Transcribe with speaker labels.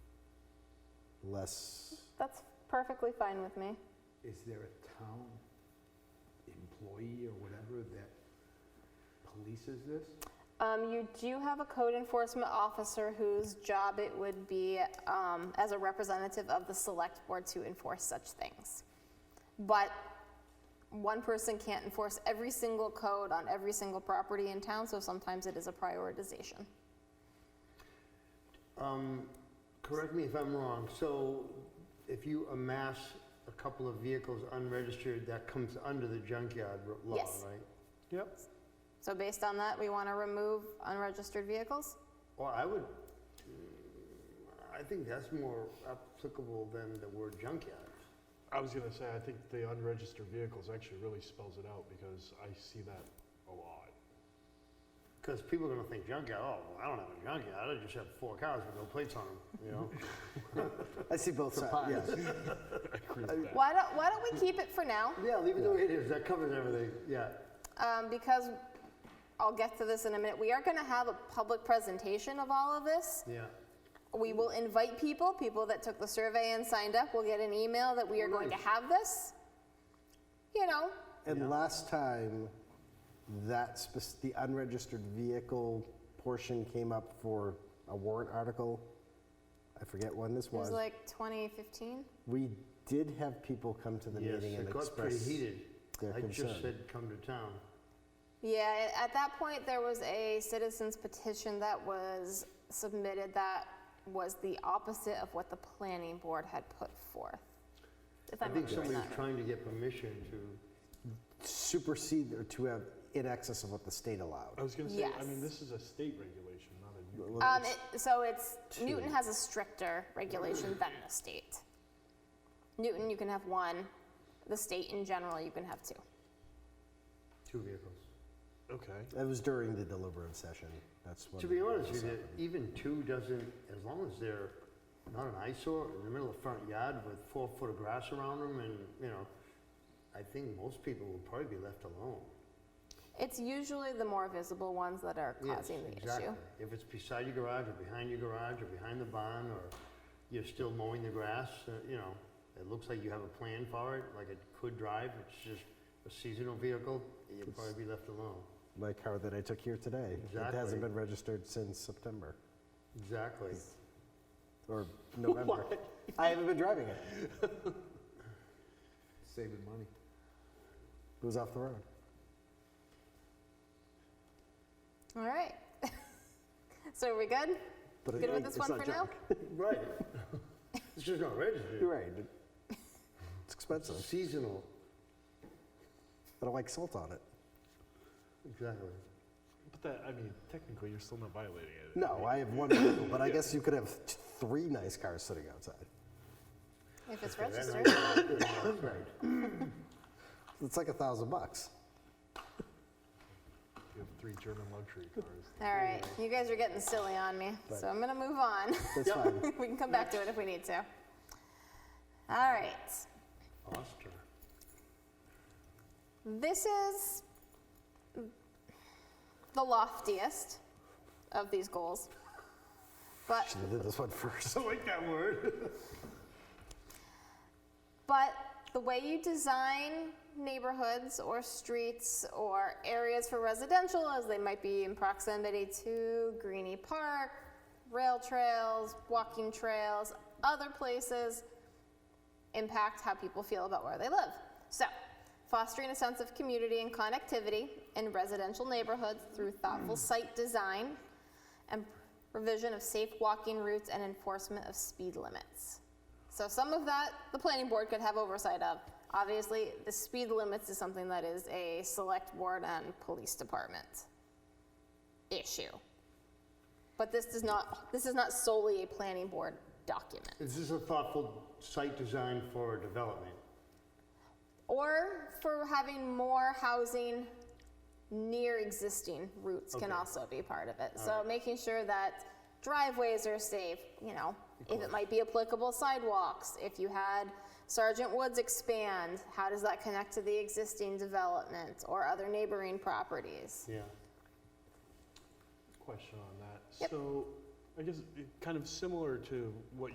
Speaker 1: less,
Speaker 2: That's perfectly fine with me.
Speaker 3: Is there a town employee or whatever that polices this?
Speaker 2: Um, you do have a code enforcement officer whose job it would be, um, as a representative of the select board to enforce such things. But one person can't enforce every single code on every single property in town, so sometimes it is a prioritization.
Speaker 4: Um, correct me if I'm wrong, so if you amass a couple of vehicles unregistered, that comes under the junkyard r- law, right?
Speaker 2: Yes.
Speaker 1: yep,
Speaker 2: So based on that, we want to remove unregistered vehicles?
Speaker 4: Well, I would, mm, I think that's more applicable than the word junkyard.
Speaker 1: I was gonna say, I think the unregistered vehicles actually really spells it out because I see that a lot.
Speaker 4: Because people are gonna think junkyard, oh, well, I don't have a junkyard, I just have four cars with no plates on them, you know?
Speaker 3: I see both sides,
Speaker 4: Surprise.
Speaker 3: yes.
Speaker 1: I agree with that.
Speaker 2: Why don't, why don't we keep it for now?
Speaker 4: Yeah, leave it the way it is, that covers everything, yeah.
Speaker 2: um, because I'll get to this in a minute. We are going to have a public presentation of all of this.
Speaker 4: Yeah.
Speaker 2: We will invite people, people that took the survey and signed up will get an email that we are going to have this. You know,
Speaker 3: And last time, that, spec- the unregistered vehicle portion came up for a warrant article. I forget when this
Speaker 2: it was
Speaker 3: was.
Speaker 2: like 2015.
Speaker 3: We did have people come to the
Speaker 4: Yes,
Speaker 3: meeting and
Speaker 4: it got pretty
Speaker 3: express
Speaker 4: heated.
Speaker 3: their
Speaker 4: I just
Speaker 3: concern.
Speaker 4: said, come to town.
Speaker 2: Yeah, a- at that point, there was a citizen's petition that was submitted that was the opposite of what the planning board had put forth. If
Speaker 4: I
Speaker 2: I'm
Speaker 4: think
Speaker 2: remembering
Speaker 4: somebody was
Speaker 2: that right.
Speaker 4: trying to get permission to
Speaker 3: Supersede or to have in excess of what the state allowed.
Speaker 1: I was gonna say, I
Speaker 2: Yes.
Speaker 1: mean, this is a state regulation, not a new.
Speaker 3: Well,
Speaker 2: Um,
Speaker 3: it's-
Speaker 2: it, so it's, Newton has a stricter regulation than the state. Newton, you can have one. The state in general, you can have two.
Speaker 4: two vehicles.
Speaker 1: Okay.
Speaker 3: It was during the deliberative session, that's when.
Speaker 4: To be honest with you, even two doesn't, as long as they're not an eyesore in the middle of the front yard with four foot of grass around them and, you know, I think most people will probably be left alone.
Speaker 2: It's usually the more visible ones that are
Speaker 4: Yes,
Speaker 2: causing the
Speaker 4: exactly.
Speaker 2: issue.
Speaker 4: If it's beside your garage or behind your garage or behind the barn or you're still mowing the grass, uh, you know, it looks like you have a plan for it, like it could drive, it's just a seasonal vehicle, you'll probably be left alone.
Speaker 3: My car that I took here today. It
Speaker 4: Exactly.
Speaker 3: hasn't been registered since September
Speaker 4: Exactly.
Speaker 3: or November. I haven't been driving it.
Speaker 5: Saving money.
Speaker 3: It was off the road.
Speaker 2: All right. so are we good?
Speaker 3: But it-
Speaker 2: Good with this
Speaker 3: it's
Speaker 2: one
Speaker 3: not
Speaker 2: for now?
Speaker 3: junk.
Speaker 4: Right. It's just not registered.
Speaker 3: You're right. It's expensive.
Speaker 4: Seasonal,
Speaker 3: I don't like salt on it.
Speaker 4: exactly.
Speaker 1: But that, I mean, technically, you're still not violating it.
Speaker 3: No, I have one vehicle, but I guess you could have t- three nice cars sitting outside.
Speaker 2: If it's
Speaker 4: Yeah, that
Speaker 2: registered.
Speaker 4: might be good, right.
Speaker 3: It's like a thousand bucks.
Speaker 1: You have three German luxury cars.
Speaker 2: All right. You guys are getting silly on me, so I'm going to move on.
Speaker 3: That's fine.
Speaker 2: we can come back to it if we need to. All right.
Speaker 4: Oscar.
Speaker 2: This is the loftiest of these goals. But,
Speaker 3: Should have did this one first.
Speaker 4: I like that word.
Speaker 2: but the way you design neighborhoods or streets or areas for residential is they might be in proximity to Greenie Park, rail trails, walking trails, other places impact how people feel about where they live. So, fostering a sense of community and connectivity in residential neighborhoods through thoughtful site design and provision of safe walking routes and enforcement of speed limits. So, some of that the planning board could have oversight of. Obviously, the speed limits is something that is a select board and police department issue. But this does not this is not solely a planning board document.
Speaker 4: Is this a thoughtful site design for development?
Speaker 2: Or for having more housing near existing routes can
Speaker 4: Okay.
Speaker 2: also be part of it. So making sure that driveways are safe, you know, if it might be applicable sidewalks, if you had Sergeant Woods expand, how does that connect to the existing development or other neighboring properties?
Speaker 4: Yeah.
Speaker 1: Question on that.
Speaker 2: Yep.
Speaker 1: So, I guess, it- kind of similar to what